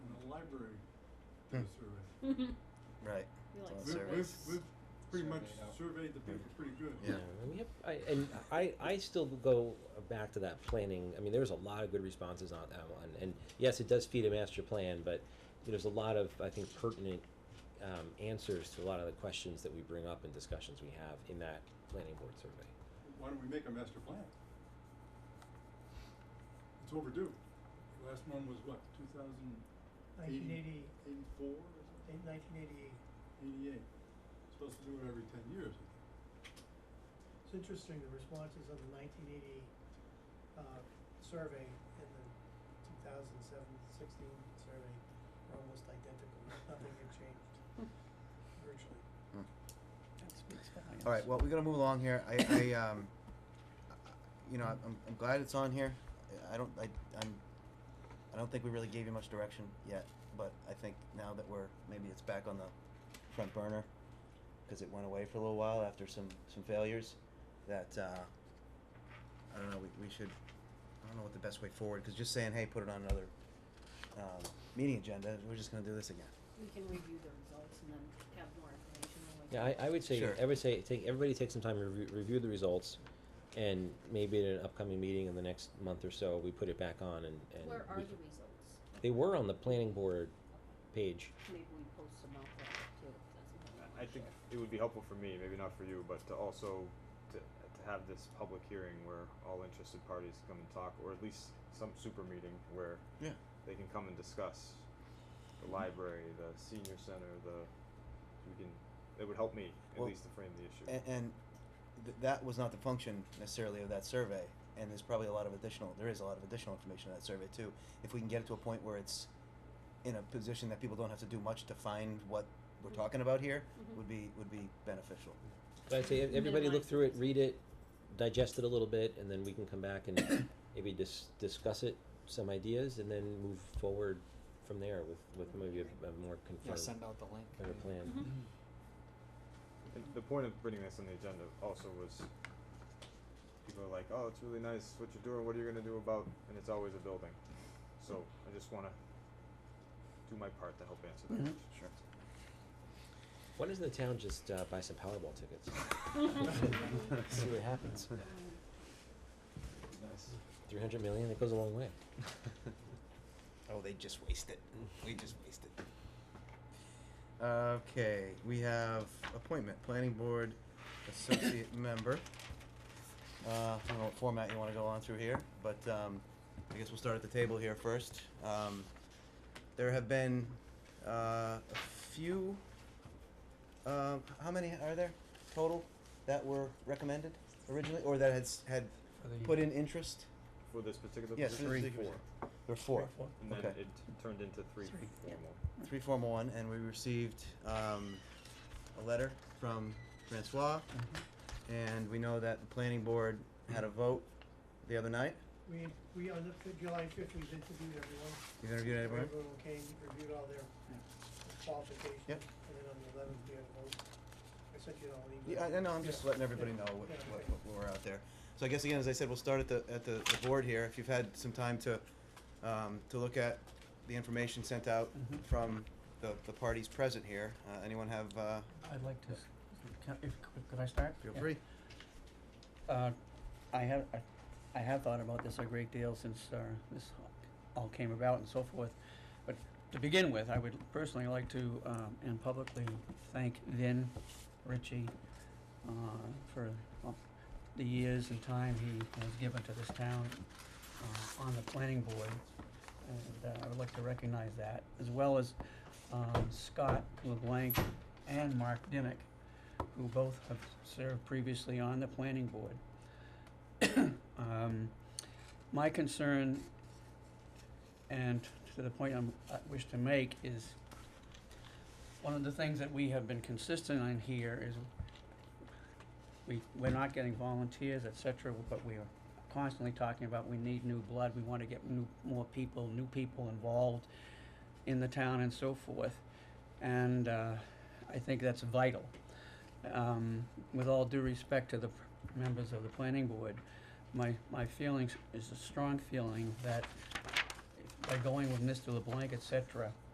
do a survey. Right. We like Well, surveys. surveys. We've, we've, we've pretty much Surveyed out. surveyed the paper pretty good. Yeah. and we have, I, and I, I still go back to that planning, I mean, there was a lot of good responses on that one, and yes, it does feed a master plan, but there's a lot of, I think, pertinent, um, answers to a lot of the questions that we bring up and discussions we have in that planning board survey. Why don't we make a master plan? It's overdue. The Last one was what, two thousand Nineteen eighty, eighty-four or something, nineteen eighty-eight. eighty-eight? Supposed to do it every ten years, I think. It's interesting, the responses on the nineteen eighty, uh, survey and the two thousand seven, sixteen survey are almost identical. Nothing had changed virtually. Hmm. That speaks volumes. All right. Well, we gotta move along here. I, I um, you know, I'm, I'm glad it's on here. I- I don't, I, I'm, I don't think we really gave you much direction yet, but I think now that we're maybe it's back on the front burner because it went away for a little while after some some failures. That uh, I don't know. We, we should. I don't know what the best way forward because just saying, hey, put it on another um, meeting agenda. We're just gonna do this again. We can review the results and then have more information when we. Yeah, I, I would say, Sure. I would say, take, everybody take some time, to review, review the results, and maybe at an upcoming meeting in the next month or so, we put it back on and, and. Where are we- the results? They were on the planning board page. Maybe we post them out there too, if that's what we wanna I think share. it would be helpful for me, maybe not for you, but to also to, to have this public hearing where all interested parties come and talk, or at least some super meeting where Yeah. they can come and discuss Mm-hmm. the library, the senior center, the we can. It would help me at Well, least to frame the issue. and, and th- that was not the function necessarily of that survey and there's probably a lot of additional there is a lot of additional information in that survey too if we can get it to a point where it's in a position that people don't have to do much to find what we're Mhm. talking about here Mhm. would be would be beneficial But I'd say ev- everybody look Minimize through it, it. read it, digest it a little bit, and then we can come back and maybe dis- discuss it, some ideas, and then move forward from there with, with maybe a, a more Yeah, confirmed, uh, send out the link. better yeah. plan. Mhm. And the point of putting this on the agenda also was people are like, oh, it's really nice what you're doing. What are you gonna do about? And it's always a building. So I just want to do my part to help answer that. question. Mm-hmm. sure Why doesn't the town just uh, buy some Powerball tickets? See what happens. Um, Nice. Three hundred million, it goes a long way. oh they just waste it we just waste it okay we have appointment planning board associate member Uh, I don't know what format you wanna go on through here, but, um, I guess we'll start at the table here first. Um, there have been, uh, a few, um, how many are there total that were recommended originally, or that had, s- had put in interest? For this particular Yes, position, for this four, particular- There were four. Four. and then Okay. it turned into three Three, yeah. formal. Three formal one, and we received, um, a letter from Francois, and we know that the planning board had a vote the other night. We, we, on the, fi- July fifth, we've interviewed everyone. You interviewed everyone? Everyone came, reviewed all their qualifications. Yep. And then on the eleventh, we had a vote. I sent you all an email. Yeah, I, I know, I'm just Yeah. letting everybody Yeah. know what, Yeah, what, okay. what we're out there. So I guess again, as I said, we'll start at the, at the, the board here, if you've had some time to, um, to look at the information sent out Mhm. from the, the parties present here, uh, anyone have, uh, I'd like to, s- can, if, could- could I start? feel Yeah. free? Uh, I have, I, I have thought about this a great deal since, uh, this all came about and so forth. But to begin with, I would personally like to, um, and publicly thank Vin Ritchie, uh, for uh, the years and time he has given to this town, uh, on the planning board. And uh, I would like to recognize that, as well as, um, Scott LeBlanc and Mark Dimick, who both have served previously on the planning board. Um, my concern, and to the point I'm, I wish to make, is one of the things that we have been consistent on here is we, we're not getting volunteers, et cetera, but we are constantly talking about we need new blood, we wanna get new, more people, new people involved in the town and so forth. And, uh, I think that's vital um, with all due respect to the p- members of the planning board, my, my feelings is a strong feeling that by going with Mr. LeBlanc, et cetera,